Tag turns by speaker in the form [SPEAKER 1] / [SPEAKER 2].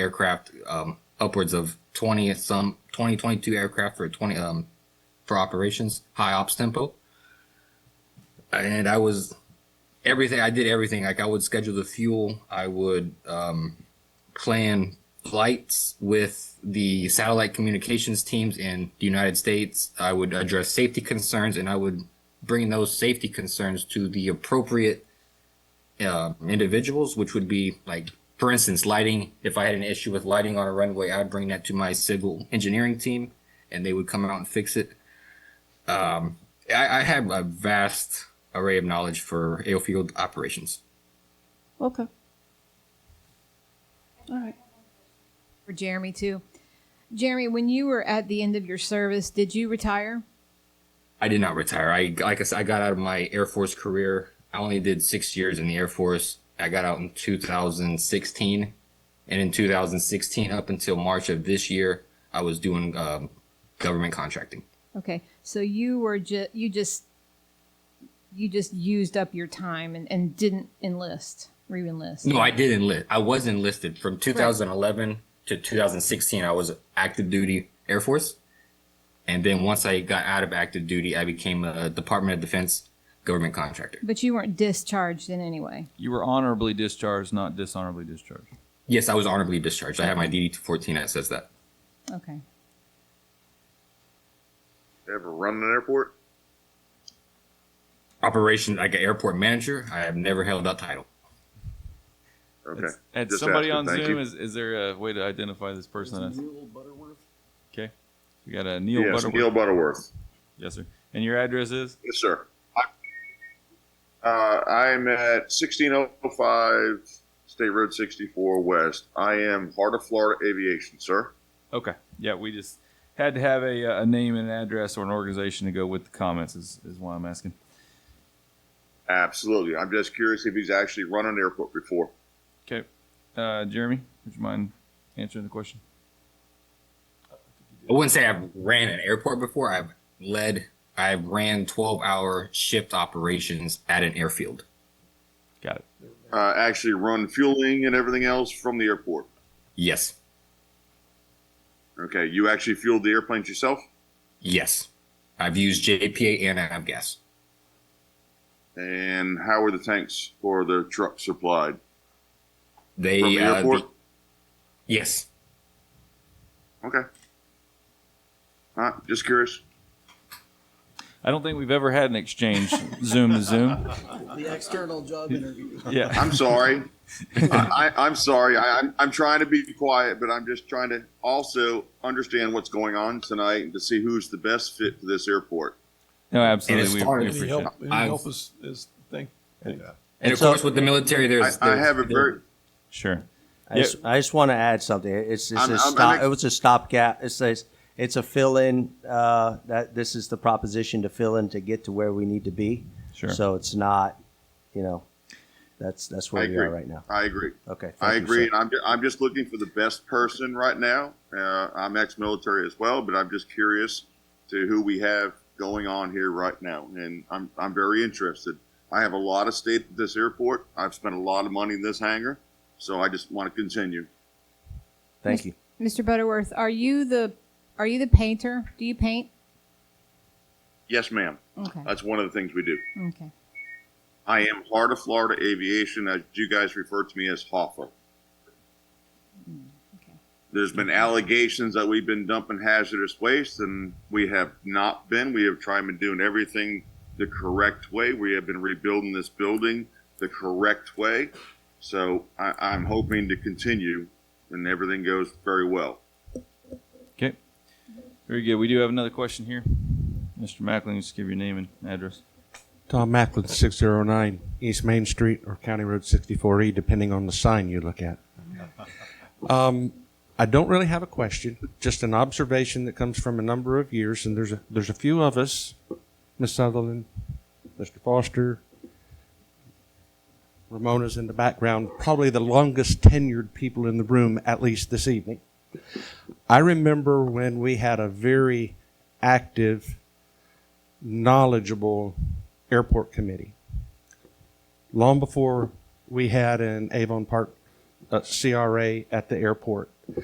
[SPEAKER 1] aircraft, um, upwards of twenty some twenty twenty two aircraft for twenty um for operations, high ops tempo. And I was everything. I did everything. Like I would schedule the fuel. I would um, plan flights with the satellite communications teams in the United States. I would address safety concerns, and I would bring those safety concerns to the appropriate uh, individuals, which would be like, for instance, lighting. If I had an issue with lighting on a runway, I'd bring that to my civil engineering team, and they would come out and fix it. Um, I, I have a vast array of knowledge for airfield operations.
[SPEAKER 2] Okay. All right.
[SPEAKER 3] for Jeremy too. Jeremy, when you were at the end of your service, did you retire?
[SPEAKER 1] I did not retire. I like I said, I got out of my Air Force career. I only did six years in the Air Force. I got out in 2016, and in 2016 up until March of this year, I was doing um, government contracting.
[SPEAKER 3] Okay, so you were ju- you just you just used up your time and, and didn't enlist, re-enlist.
[SPEAKER 1] No, I did enlist. I was enlisted from 2011 to 2016. I was active duty Air Force, and then once I got out of active duty, I became a Department of Defense government contractor.
[SPEAKER 3] But you weren't discharged in any way.
[SPEAKER 4] You were honorably discharged, not dishonorably discharged.
[SPEAKER 1] Yes, I was honorably discharged. I have my DD 214 that says that.
[SPEAKER 3] Okay.
[SPEAKER 5] Ever run an airport?
[SPEAKER 1] operation like an airport manager. I have never held that title.
[SPEAKER 5] Okay.
[SPEAKER 4] It's- And
[SPEAKER 5] Just
[SPEAKER 4] somebody
[SPEAKER 5] asking,
[SPEAKER 4] on
[SPEAKER 5] thank
[SPEAKER 4] Zoom,
[SPEAKER 5] you.
[SPEAKER 4] is, is there a way to identify this person? Okay. We got a Neil
[SPEAKER 5] yes,
[SPEAKER 4] Butterworth.
[SPEAKER 5] Neil Butterworth.
[SPEAKER 4] Yes, sir. And your address is?
[SPEAKER 5] Yes, sir. Uh, I'm at 1605 State Road 64 West. I am Heart of Florida Aviation, sir.
[SPEAKER 4] Okay. Yeah, we just had to have a, uh, a name and an address or an organization to go with the comments, is, is why I'm asking.
[SPEAKER 5] Absolutely. I'm just curious if he's actually run an airport before.
[SPEAKER 4] Okay. Uh, Jeremy, would you mind answering the question?
[SPEAKER 1] I wouldn't say I've ran an airport before. I've led, I've ran 12 hour shift operations at an airfield.
[SPEAKER 4] Got it.
[SPEAKER 5] Uh, actually run fueling and everything else from the airport.
[SPEAKER 1] Yes.
[SPEAKER 5] Okay. You actually fueled the airplanes yourself?
[SPEAKER 1] Yes. I've used JPA and Avgas.
[SPEAKER 5] And how were the tanks for the truck supplied?
[SPEAKER 1] They,
[SPEAKER 5] From the
[SPEAKER 1] uh,
[SPEAKER 5] airport?
[SPEAKER 1] the- yes.
[SPEAKER 5] Okay. All right. Just curious.
[SPEAKER 4] I don't think we've ever had an exchange Zoom to Zoom.
[SPEAKER 6] The external job interview.
[SPEAKER 4] Yeah.
[SPEAKER 5] I'm sorry. I, I, I'm sorry. I, I'm, I'm trying to be quiet, but I'm just trying to also understand what's going on tonight and to see who's the best fit for this airport.
[SPEAKER 4] No,
[SPEAKER 1] And
[SPEAKER 4] absolutely.
[SPEAKER 1] it
[SPEAKER 4] We,
[SPEAKER 1] started-
[SPEAKER 4] we
[SPEAKER 1] And
[SPEAKER 4] appreciate
[SPEAKER 7] Any
[SPEAKER 4] it.
[SPEAKER 7] help, any
[SPEAKER 1] I've-
[SPEAKER 7] help is, is, thank,
[SPEAKER 1] And, of course, with the military,
[SPEAKER 5] I,
[SPEAKER 1] there's,
[SPEAKER 5] I
[SPEAKER 1] there's-
[SPEAKER 5] have a very
[SPEAKER 4] Sure.
[SPEAKER 8] I just, I just want to add something. It's, it's
[SPEAKER 5] I'm-
[SPEAKER 8] a
[SPEAKER 5] I'm-
[SPEAKER 8] stop.
[SPEAKER 5] I'm-
[SPEAKER 8] it was a stopgap. It says it's a fill in. Uh, that this is the proposition to fill in to get to where we need to be.
[SPEAKER 4] Sure.
[SPEAKER 8] So it's not, you know, that's that's where
[SPEAKER 5] I
[SPEAKER 8] we
[SPEAKER 5] agree.
[SPEAKER 8] are right now.
[SPEAKER 5] I agree.
[SPEAKER 8] Okay.
[SPEAKER 5] I
[SPEAKER 8] thank you,
[SPEAKER 5] agree.
[SPEAKER 8] sir.
[SPEAKER 5] and I'm, ju- I'm just looking for the best person right now. Uh, I'm ex-military as well, but I'm just curious to who we have going on here right now, and I'm I'm very interested. I have a lot of state at this airport. I've spent a lot of money in this hangar, so I just want to continue.
[SPEAKER 8] Thank you.
[SPEAKER 3] Mr. Butterworth, are you the are you the painter? Do you paint?
[SPEAKER 5] Yes, ma'am.
[SPEAKER 3] Okay.
[SPEAKER 5] That's one of the things we do.
[SPEAKER 3] Okay.
[SPEAKER 5] I am Heart of Florida Aviation, as you guys refer to me as HOFA.
[SPEAKER 3] okay.
[SPEAKER 5] There's been allegations that we've been dumping hazardous waste, and we have not been. We have tried and doing everything the correct way. We have been rebuilding this building the correct way. So I, I'm hoping to continue, and everything goes very well.
[SPEAKER 4] Okay. Very good. We do have another question here. Mr. Mackling, just give your name and address.
[SPEAKER 9] Tom Macklin, 609 East Main Street or County Road 64E, depending on the sign you look at. Um, I don't really have a question, just an observation that comes from a number of years, and there's a, there's a few of us, Ms. Sutherland, Mr. Foster, Ramona's in the background, probably the longest tenured people in the room, at least this evening. I remember when we had a very active, knowledgeable airport committee. Long before we had an Avon Park uh, CRA at the airport.